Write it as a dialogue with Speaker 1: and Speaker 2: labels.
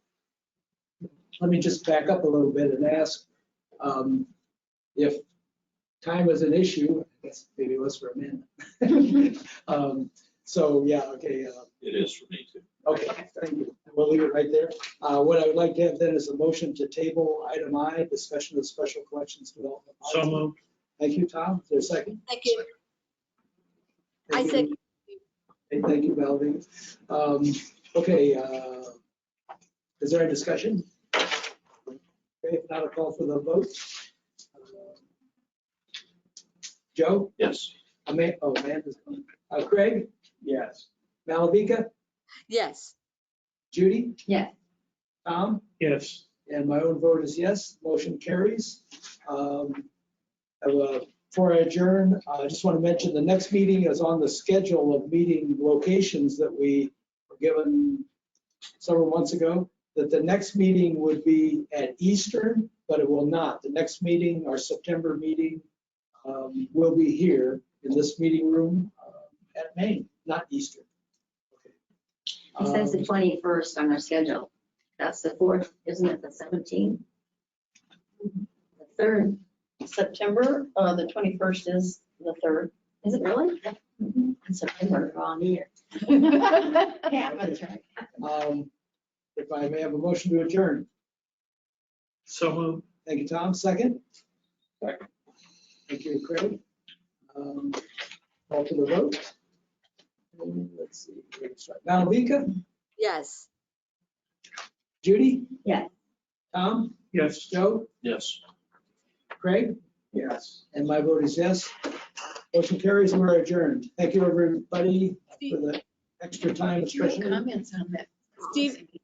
Speaker 1: let me just back up a little bit and ask um, if time is an issue, I guess maybe it was for a minute. Um, So, yeah, okay, uh,
Speaker 2: It is for me too.
Speaker 1: Okay, thank you. We'll leave it right there. Uh, What I would like to have then is a motion to table item I, discussion of special collections development.
Speaker 2: So moved.
Speaker 1: Thank you, Tom. Is there a second?
Speaker 3: Second, I
Speaker 1: Thank you.
Speaker 3: said,
Speaker 1: Hey, Thank you, Melvin. Um, Okay, uh, is there a discussion? Okay, if not, a call for the vote. Uh, Joe?
Speaker 2: Yes.
Speaker 1: Amanda, oh, Amanda's coming. Uh, Craig? Yes. Malavika?
Speaker 3: yes,
Speaker 1: Judy?
Speaker 4: Yes.
Speaker 1: Tom?
Speaker 2: Yes.
Speaker 1: And my own vote is yes, motion carries. Um, I will- Before I adjourn, I just want to mention the next meeting is on the schedule of meeting locations that we were given several months ago, that the next meeting would be at Eastern, but it will not. The next meeting, our September meeting, um, will be here in this meeting room uh, at Maine, not Eastern.
Speaker 4: It says the
Speaker 1: Um,
Speaker 4: twenty-first on our schedule. That's the fourth, isn't it, the seventeenth? The third,
Speaker 5: September, uh, the twenty-first is the third.
Speaker 4: is it really? In September, wrong year.
Speaker 5: Yeah, that's right.
Speaker 1: um, If I may have a motion to adjourn.
Speaker 2: So moved.
Speaker 1: Thank you, Tom. Second?
Speaker 2: Second.
Speaker 1: Thank you, Craig. Um, Call to the vote. And Let's see. we're gonna start. Malavika,
Speaker 3: yes.
Speaker 1: Judy?
Speaker 4: Yes.
Speaker 1: Tom,
Speaker 2: Yes.
Speaker 1: Joe,
Speaker 2: Yes.
Speaker 1: Craig? Yes. And my vote is yes. Motion carries, we're adjourned. Thank you, everybody, for the extra time,
Speaker 5: Did you have
Speaker 1: especially.
Speaker 5: comments on that?
Speaker 3: Steve,